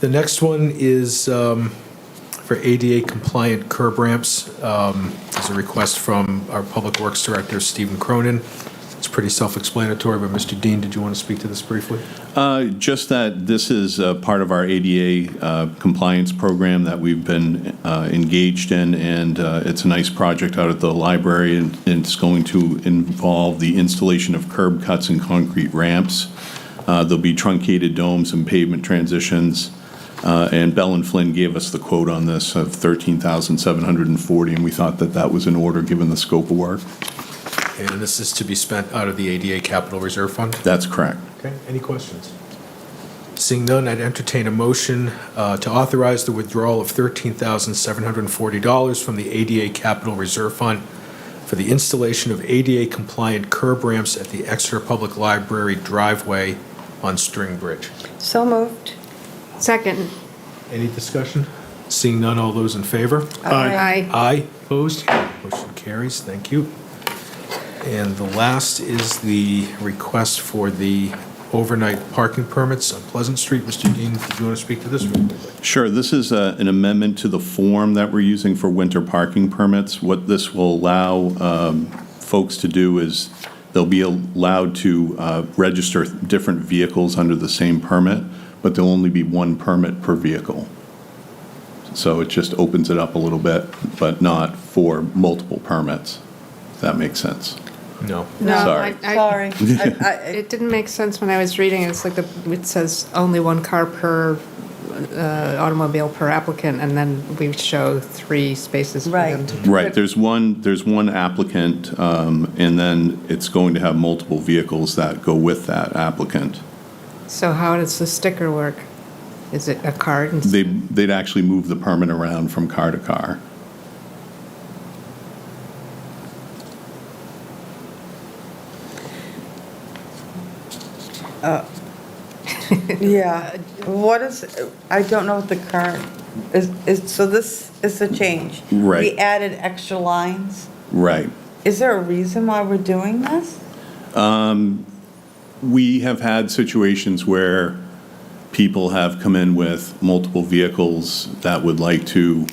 The next one is um, for ADA compliant curb ramps. Um, There's a request from our Public Works Director, Stephen Cronin. It's pretty self-explanatory, but Mr. Dean, did you want to speak to this briefly? Uh, Just that this is uh, part of our ADA uh, compliance program that we've been uh, engaged in, and uh, it's a nice project out at the library, and and it's going to involve the installation of curb cuts and concrete ramps. Uh, There'll be truncated domes and pavement transitions, Uh, and Bell and Flynn gave us the quote on this of 13740 and we thought that that was in order, given the scope of work. And this is to be spent out of the ADA Capital Reserve Fund? That's correct. Okay, any questions? Seeing none, I'd entertain a motion uh, to authorize the withdrawal of $13,740 from the ADA Capital Reserve Fund for the installation of ADA-compliant curb ramps at the Exeter Public Library driveway on String Bridge. So moved. Second. Any discussion? Seeing none, all those in favor? Aye. Aye, opposed? Motion carries, thank you. And the last is the request for the overnight parking permits on Pleasant Street. Mr. Dean, did you want to speak to this? real quickly? Sure, this is uh, an amendment to the form that we're using for winter parking permits. What this will allow um, folks to do is they'll be allowed to uh, register different vehicles under the same permit, but there'll only be one permit per vehicle. So it just opens it up a little bit, but not for multiple permits, if that makes sense. No. No, Sorry. I- I- Sorry. I- I- It didn't make sense when I was reading it. It's like the, it says only one car per uh, automobile per applicant, and then we show three spaces for them. Right. Right, there's one, there's one applicant, um, and then it's going to have multiple vehicles that go with that applicant. So how does the sticker work? Is it a card? and- They, they'd actually move the permit around from car to car. Yeah, what is, I don't know what the current, is, is, so this is a change. Right. We added extra lines. Right. Is there a reason why we're doing this? We have had situations where people have come in with multiple vehicles that would like to,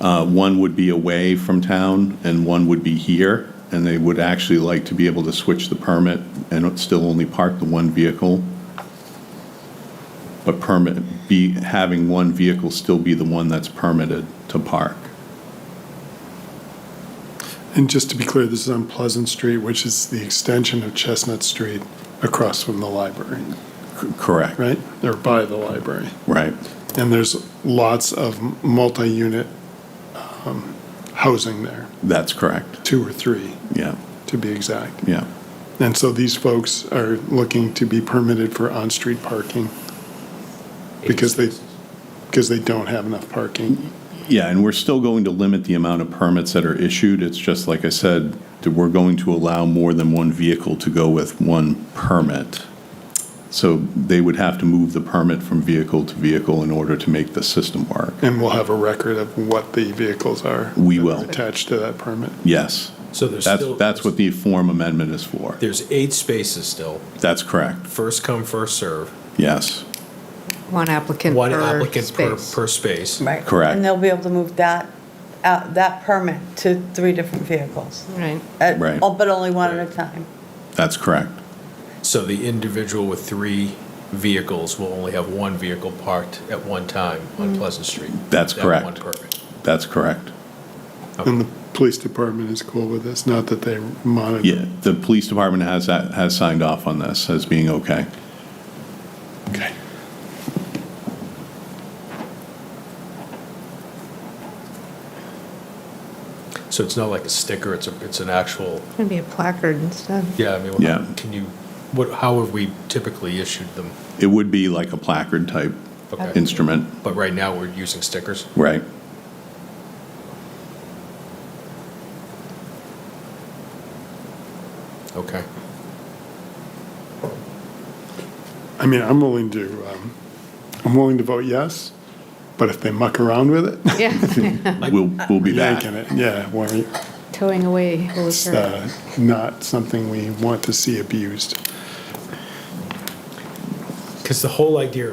uh, one would be away from town and one would be here, and they would actually like to be able to switch the permit and still only park the one vehicle. But permit, be, having one vehicle still be the one that's permitted to park. And just to be clear, this is on Pleasant Street, which is the extension of Chestnut Street across from the library, C- Correct. right? Or by the library. Right. And there's lots of multi-unit um, housing there, That's correct. two or three, Yeah, to be exact. yeah. And so these folks are looking to be permitted for on-street parking because they, because they don't have enough parking. Yeah, and we're still going to limit the amount of permits that are issued. It's just, like I said, that we're going to allow more than one vehicle to go with one permit. So they would have to move the permit from vehicle to vehicle in order to make the system work. And we'll have a record of what the vehicles are. We that are will. Attached to that permit. Yes, So there's that's, still. that's what the form amendment is for. There's eight spaces still, That's correct, first come, first serve. yes, One applicant One per applicant per, space. per space. Right. Correct. And they'll be able to move that, out that permit to three different vehicles. Right. at- Right. oh, But only one at a time. that's correct. So the individual with three vehicles will only have one vehicle parked at one time Mm-hmm. on Pleasant Street. That's That one correct. permit. That's correct. And the police department is cool with this, not that they monitor. Yeah, the police department has, that- has signed off on this as being okay. Okay. So it's not like a sticker, it's a, it's an actual It's going to be a placard instead. Yeah, I mean, Yeah. wha- can you, what, how have we typically issued them? It would be like a placard type Okay. instrument, But right now, we're using stickers? right? Okay. I mean, I'm willing to, um, I'm willing to vote yes, but if they muck around with it, Yeah, We'll, we'll be back. yanking it, yeah, worry. towing away. will It's occur. uh, not something we want to see abused. Because the whole idea